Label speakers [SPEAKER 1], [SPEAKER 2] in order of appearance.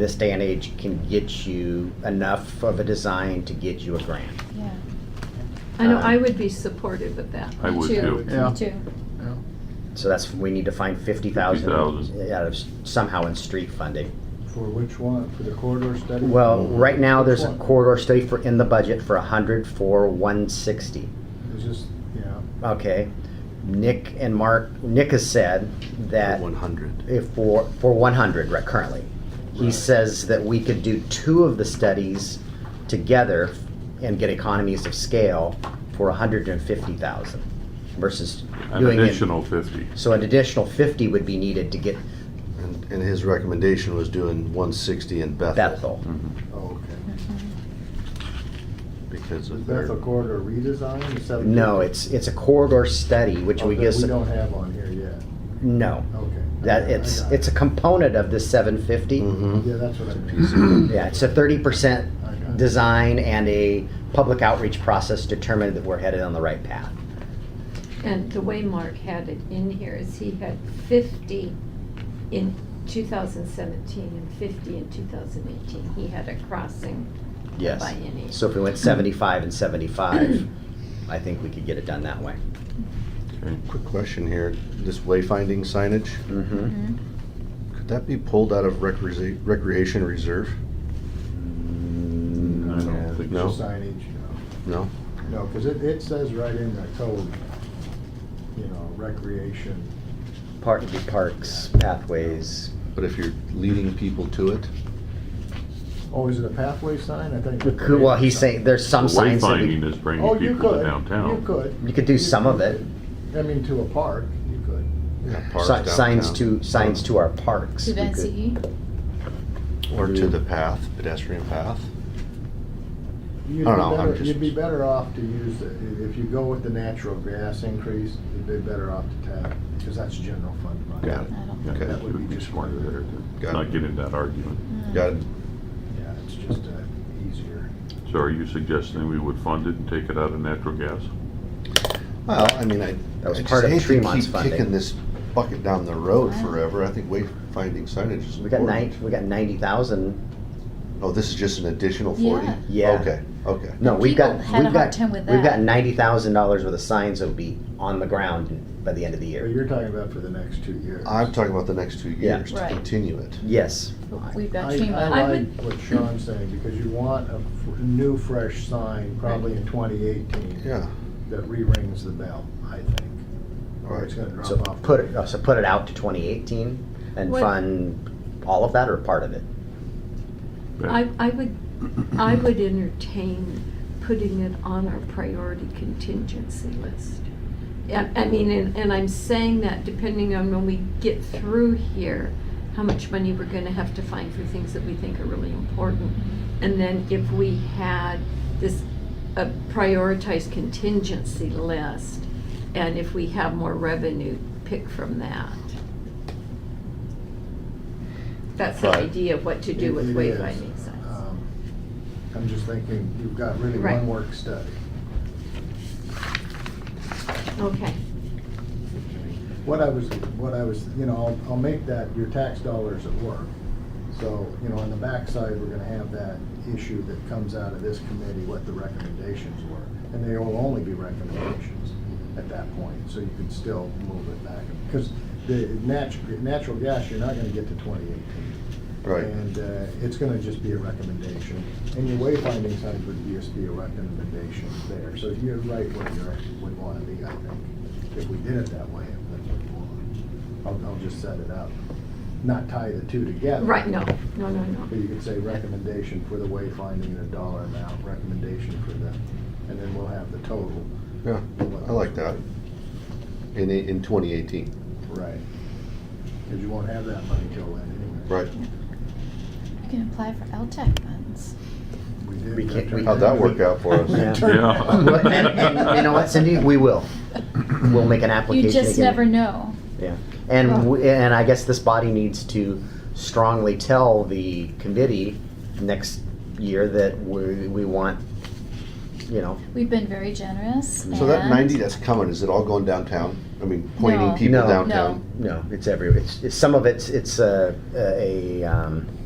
[SPEAKER 1] this day and age can get you enough of a design to get you a grant.
[SPEAKER 2] Yeah.
[SPEAKER 3] I know,
[SPEAKER 1] Um,
[SPEAKER 3] I would be supportive of that.
[SPEAKER 4] I would
[SPEAKER 2] Two.
[SPEAKER 4] too.
[SPEAKER 5] Yeah.
[SPEAKER 2] Me too.
[SPEAKER 1] So that's, we need to find fifty thousand
[SPEAKER 4] 50,000.
[SPEAKER 1] out of, s- somehow in street funding.
[SPEAKER 5] For which one? For the corridor study?
[SPEAKER 1] Well, right now, there's a
[SPEAKER 5] Which one?
[SPEAKER 1] corridor study for, in the budget for a hundred for one sixty.
[SPEAKER 5] It's just, yeah.
[SPEAKER 1] Okay, Nick and Mark, Nick has said that
[SPEAKER 6] One hundred.
[SPEAKER 1] if for, for one hundred right currently. He
[SPEAKER 5] Right.
[SPEAKER 1] says that we could do two of the studies together and get economies of scale for hundred and fifty thousand versus
[SPEAKER 4] An
[SPEAKER 1] doing it.
[SPEAKER 4] additional fifty.
[SPEAKER 1] So an additional fifty would be needed to get
[SPEAKER 6] And, and his recommendation was doing one sixty in Bethel.
[SPEAKER 1] Bethel.
[SPEAKER 5] Oh, okay.
[SPEAKER 6] Because
[SPEAKER 5] Is
[SPEAKER 6] of
[SPEAKER 5] that
[SPEAKER 6] their,
[SPEAKER 5] the corridor redesign? Is that-
[SPEAKER 1] No, it's, it's a corridor study, which
[SPEAKER 5] Oh,
[SPEAKER 1] we
[SPEAKER 5] that
[SPEAKER 1] guess,
[SPEAKER 5] We don't have on here yet.
[SPEAKER 1] no.
[SPEAKER 5] Okay. I
[SPEAKER 1] That,
[SPEAKER 5] got it, I
[SPEAKER 1] it's,
[SPEAKER 5] got
[SPEAKER 1] it's a
[SPEAKER 5] it.
[SPEAKER 1] component of the seven fifty.
[SPEAKER 6] Mhm.
[SPEAKER 5] Yeah, that's what I
[SPEAKER 6] piece
[SPEAKER 5] mean.
[SPEAKER 6] of it.
[SPEAKER 1] Yeah, it's a thirty percent
[SPEAKER 5] I got it.
[SPEAKER 1] design and a public outreach process determined that we're headed on the right path.
[SPEAKER 3] And the way Mark had it in here is he had fifty in two thousand seventeen and fifty in two thousand eighteen. He had a crossing
[SPEAKER 1] Yes.
[SPEAKER 3] by any.
[SPEAKER 1] So if we went seventy-five and seventy-five, I think we could get it done that way.
[SPEAKER 4] Okay.
[SPEAKER 6] Quick question here, this wayfinding signage,
[SPEAKER 1] Mm-hmm.
[SPEAKER 6] could that be pulled out of recre- recreation reserve?
[SPEAKER 4] I don't think
[SPEAKER 6] No.
[SPEAKER 4] so.
[SPEAKER 5] Signage, no.
[SPEAKER 6] No?
[SPEAKER 5] No, because it, it says right in the code, you know, recreation.
[SPEAKER 1] Park, parks, pathways.
[SPEAKER 6] But if you're leading people to it,
[SPEAKER 5] Oh, is it a pathway sign? I think. it's a
[SPEAKER 1] Well, he's
[SPEAKER 5] sign.
[SPEAKER 1] saying, there's some
[SPEAKER 4] The
[SPEAKER 1] signs that we,
[SPEAKER 4] Wayfinding is
[SPEAKER 5] Oh,
[SPEAKER 4] bringing
[SPEAKER 5] you
[SPEAKER 4] people
[SPEAKER 5] could,
[SPEAKER 4] to downtown.
[SPEAKER 5] you could.
[SPEAKER 1] you could do some of it.
[SPEAKER 5] I mean, to a park, you could.
[SPEAKER 6] yeah, parks
[SPEAKER 1] Si- Signs
[SPEAKER 6] downtown.
[SPEAKER 1] to, signs to our parks.
[SPEAKER 2] To E?
[SPEAKER 1] we could-
[SPEAKER 2] Bensy.
[SPEAKER 6] Or to the path, pedestrian path.
[SPEAKER 5] You'd
[SPEAKER 6] I
[SPEAKER 5] be
[SPEAKER 6] don't know, I'm
[SPEAKER 5] better,
[SPEAKER 6] just-
[SPEAKER 5] you'd be better off to use, the- i- if you go with the natural gas increase, you'd be better off to tap, because that's general fund money.
[SPEAKER 6] Got it.
[SPEAKER 2] I don't
[SPEAKER 4] Yeah,
[SPEAKER 6] Okay.
[SPEAKER 4] that would be smarter there to
[SPEAKER 6] Got
[SPEAKER 4] not
[SPEAKER 6] it.
[SPEAKER 4] get in that argument.
[SPEAKER 6] Got it?
[SPEAKER 5] Yeah, it's just uh, easier.
[SPEAKER 4] So are you suggesting we would fund it and take it out of natural gas?
[SPEAKER 6] Well, I mean, I.
[SPEAKER 1] That was
[SPEAKER 6] I just
[SPEAKER 1] part of
[SPEAKER 6] hate to
[SPEAKER 1] Tremont's
[SPEAKER 6] keep
[SPEAKER 1] funding.
[SPEAKER 6] Kicking this bucket down the road forever, I think wayfinding signage is important.
[SPEAKER 1] We got nine, we got ninety thousand,
[SPEAKER 6] Oh, this is just an additional forty?
[SPEAKER 2] Yeah.
[SPEAKER 1] Yeah.
[SPEAKER 6] Okay, okay.
[SPEAKER 1] no, we've got,
[SPEAKER 2] People
[SPEAKER 1] we've
[SPEAKER 2] had a
[SPEAKER 1] got.
[SPEAKER 2] hard time with
[SPEAKER 1] We've
[SPEAKER 2] that.
[SPEAKER 1] got ninety thousand dollars worth of signs that'll be on the ground by the end of the
[SPEAKER 5] But
[SPEAKER 1] year.
[SPEAKER 5] you're talking about for the next two years.
[SPEAKER 6] I'm talking about the next two
[SPEAKER 1] Yeah.
[SPEAKER 6] years to
[SPEAKER 2] Right.
[SPEAKER 6] continue it.
[SPEAKER 1] Yes.
[SPEAKER 2] Mm. We've got
[SPEAKER 5] I,
[SPEAKER 2] Tremont.
[SPEAKER 5] I
[SPEAKER 3] I
[SPEAKER 5] like
[SPEAKER 3] would-
[SPEAKER 5] what Sean's saying, because you want a f- new, fresh sign, probably in twenty eighteen,
[SPEAKER 6] Yeah,
[SPEAKER 5] that re-rings the bell, I think. Or it's gonna
[SPEAKER 1] So uh,
[SPEAKER 5] drop off.
[SPEAKER 1] put it, so put it out to twenty eighteen and
[SPEAKER 3] What-
[SPEAKER 1] fund all of that or part of it?
[SPEAKER 3] I, I would, I
[SPEAKER 1] Mm-hmm.
[SPEAKER 3] would entertain putting it on our priority contingency list. Yeah, I mean, and, and I'm saying that depending on when we get through here, how much money we're gonna have to find for things that we think are really important. And then if we had this, a prioritized contingency list, and if we have more revenue, pick from that. That's the
[SPEAKER 6] Right.
[SPEAKER 3] idea of what to do with
[SPEAKER 5] It- it
[SPEAKER 3] wayfinding
[SPEAKER 5] is.
[SPEAKER 3] signs.
[SPEAKER 5] Um, I'm just thinking, you've got really
[SPEAKER 3] Right.
[SPEAKER 5] one work study. Uh,
[SPEAKER 3] Okay,
[SPEAKER 5] What I was, what I was, you know, I'll, I'll make that your tax dollars at work. So, you know, on the backside, we're gonna have that issue that comes out of this committee, what the recommendations were. And they will only be recommendations at that point, so you can still move it back. Because the natural, natural gas, you're not gonna get to twenty eighteen.
[SPEAKER 6] right.
[SPEAKER 5] And uh, it's gonna just be a recommendation. And your wayfinding signs would just be a recommendation there. So you're right where you are- would wanna be, I think. If we did it that way, if that's what you want. I'll, I'll just set it up. Not tie the two together.
[SPEAKER 3] right, no, no, no,
[SPEAKER 5] But
[SPEAKER 3] no.
[SPEAKER 5] you could say recommendation for the wayfinding and a dollar amount, recommendation for the, and then we'll have the total.
[SPEAKER 6] Yeah, I like that. In, in twenty eighteen,
[SPEAKER 5] Right. Because you won't have that money till then anyway.
[SPEAKER 6] right?
[SPEAKER 2] You can apply for E LTAC funds.
[SPEAKER 5] We did.
[SPEAKER 1] We can't- we-
[SPEAKER 6] How'd that work out for us?
[SPEAKER 1] Yeah.
[SPEAKER 4] Yeah.
[SPEAKER 1] Well, and, and you know what, Cindy? We will. We'll make an application.
[SPEAKER 2] You just
[SPEAKER 1] again.
[SPEAKER 2] never Oh. know.
[SPEAKER 1] Yeah, and we, and I guess this body needs to strongly tell the committee next year that we we want, you know,
[SPEAKER 2] We've been very generous
[SPEAKER 6] So that
[SPEAKER 2] and-
[SPEAKER 6] ninety that's coming, is it all going downtown? I mean, pointing
[SPEAKER 2] No.
[SPEAKER 6] people
[SPEAKER 1] No.
[SPEAKER 6] downtown?
[SPEAKER 1] no, it's every it's, it's some of it's it's a a um,